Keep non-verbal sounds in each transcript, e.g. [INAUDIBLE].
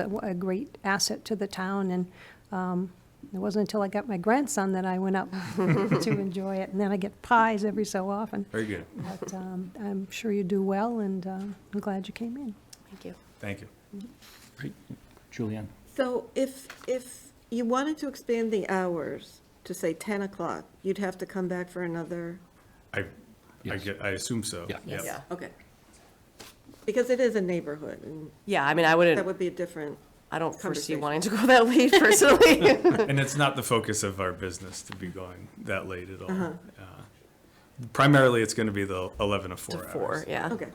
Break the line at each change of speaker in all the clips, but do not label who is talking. a a great asset to the town, and um, it wasn't until I got my grandson that I went up [LAUGHS] to enjoy it, and then I get pies every so often.
Very good.
But um, I'm sure you do well, and uh, I'm glad you came in.
Thank you.
Thank you.
Great. Julianne?
So if, if you wanted to expand the hours to say 10 o'clock, you'd have to come back for another?
I, I
Yes.
get, I assume so.
Yeah.
Yep.
Yeah.
Okay. Because it is a neighborhood, and
Yeah, I mean, I
that
wouldn't,
would be a different,
I don't foresee
conversation.
wanting to go that
[LAUGHS]
late personally.
And it's not the focus of our business to be going that late at all.
Uh-huh.
Uh, Primarily, it's going to be the 11 to 4 hours.
Four, yeah.
okay.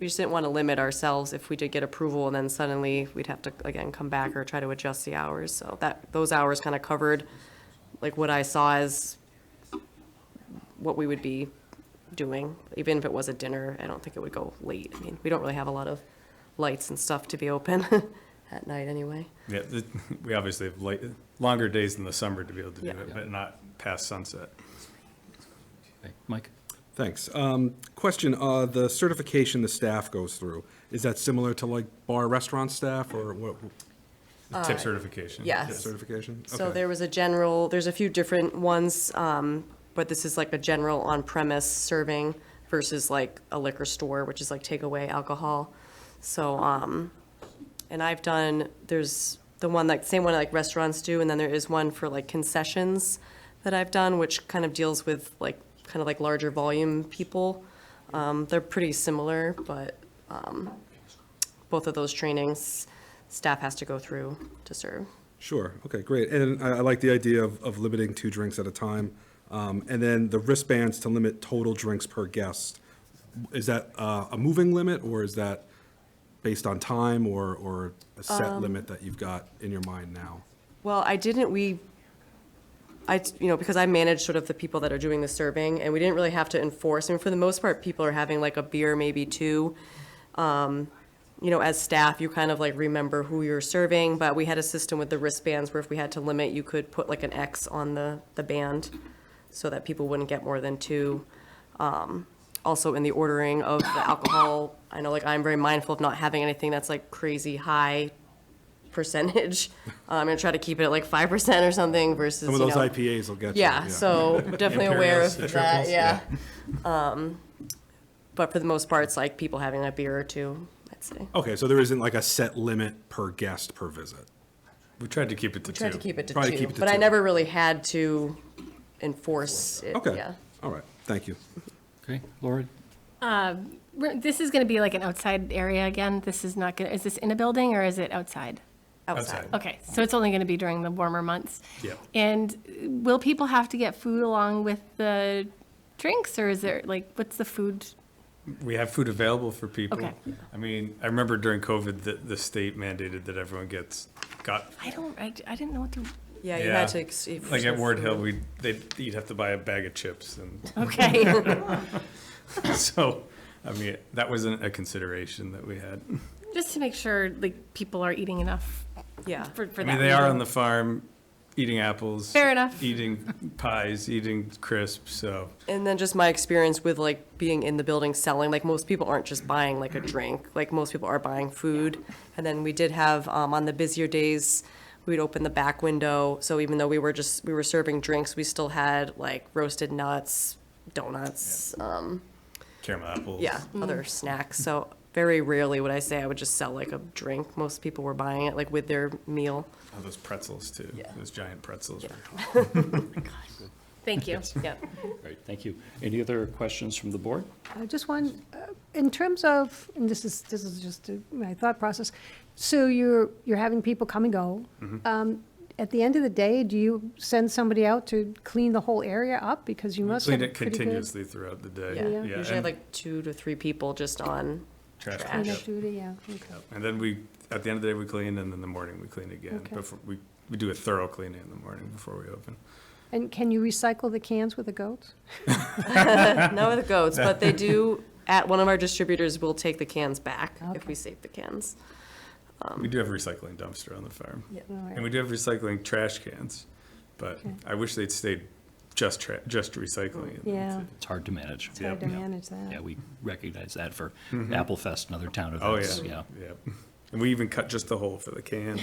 We just didn't want to limit ourselves if we did get approval and then suddenly we'd have to, again, come back or try to adjust the hours. So that, those hours kind of covered, like, what I saw as what we would be doing. Even if it was a dinner, I don't think it would go late. I mean, we don't really have a lot of lights and stuff to be open [LAUGHS] at night anyway.
Yeah, the- we obviously have late, longer days in the summer to be able to do
Yeah.
it, but not past sunset.
Okay. Mike?
Thanks. Um, Question, uh, the certification the staff goes through, is that similar to like bar restaurant staff or what
The Tip certification.
Uh, yes.
certification?
So
Okay.
there was a general, there's a few different ones, um, but this is like a general on-premise serving versus like a liquor store, which is like takeaway alcohol. So, um, and I've done, there's the one like, same one like restaurants do, and then there is one for like concessions that I've done, which kind of deals with like, kind of like larger volume people. Um, they're pretty similar, but, um, both of those trainings, staff has to go through to serve.
Sure, okay, great. And I I like the idea of of limiting two drinks at a time. Um, And then the wristbands to limit total drinks per guest. Is that uh, a moving limit or is that based on time or or a
Um,
set limit that you've got in your mind now?
Well, I didn't, we, I, you know, because I manage sort of the people that are doing the serving, and we didn't really have to enforce, I mean, for the most part, people are having like a beer, maybe two. Um, You know, as staff, you kind of like remember who you're serving, but we had a system with the wristbands where if we had to limit, you could put like an X on the, the band so that people wouldn't get more than two. Um, Also, in the ordering of the alcohol, I know like I'm very mindful of not having anything that's like crazy high percentage. [LAUGHS] I'm gonna try to keep it at like five percent or something versus,
Some of
you
those
know-
IPAs will get you.
yeah, so definitely aware
Imperials,
of
the
that,
triples,
yeah. Um, But for the most part, it's like people having a beer or two, I'd say.
Okay, so there isn't like a set limit per guest per visit?
We tried to keep it to two.
Tried to keep it to
Probably keep
two,
it to
but I
two.
never really had to enforce it,
Okay,
yeah.
all right, thank you.
Okay. Laura?
Re- This is going to be like an outside area again. This is not going, to is this in a building or is it outside?
Outside.
Outside.
Okay, so it's only going to be during the warmer months?
Yeah.
And will people have to get food along with the drinks or is there, like, what's the food?
We have food available for people.
Okay.
I mean, I remember during COVID, the, the state mandated that everyone gets, got,
I don't, I I didn't know what to,
Yeah, you had
Yeah.
to. ex- if-
like at Ward Hill,
food.
we, they, you'd have to buy a bag of chips and
okay.
[LAUGHS] So, I mean, that wasn't a consideration that we had.
Just to make sure, like, people are eating enough
Yeah,
for for
I
that.
mean, they are on
meeting.
the farm, eating apples.
Fair enough.
Eating pies, eating crisps, so,
and then just my experience with like being in the building selling, like most people aren't just buying like a drink, like most people are buying food. And then we did have, um, on the busier days, we'd open the back window, so even though we were just, we were serving drinks, we still had like roasted nuts, donuts, um,
caramel apples.
yeah, other snacks, so very rarely would I say I would just sell like a drink, most people were buying it like with their meal.
Oh, Those pretzels too,
Yeah.
those giant pretzels.
Thank you.
Yep.
Great, thank you. Any other questions from the board?
I just want, uh, in terms of, and this is, this is just uh, my thought process, so you're, you're having people come and go. Um, At the end of the day, do you send somebody out to clean the whole area up? Because you must have
Cleaned
a
it
pretty good
continuously throughout the day.
Yeah,
Yeah.
usually I have
and
like two to three people just on
trash
trash.
cleanup
pickup.
duty, yeah, okay.
And then we, at the end of the day, we clean, and in the morning, we clean again.
Okay.
Before, we, we do a thorough cleaning in the morning before we open.
And can you recycle the cans with the goats?
Not with goats, but they do, at one of our distributors, will take the cans back if we save the cans.
We do have a recycling dumpster on the farm.
All right.
And we do have recycling trash cans, but I wish they'd stayed just tra, just recycling.
Yeah,
It's hard to manage.
it's hard to
Yeah.
manage that.
Yeah, we recognize that for Apple Fest and other town
Oh,
events,
yeah, [LAUGHS]
yeah.
yeah. And we even cut just the hole for the can.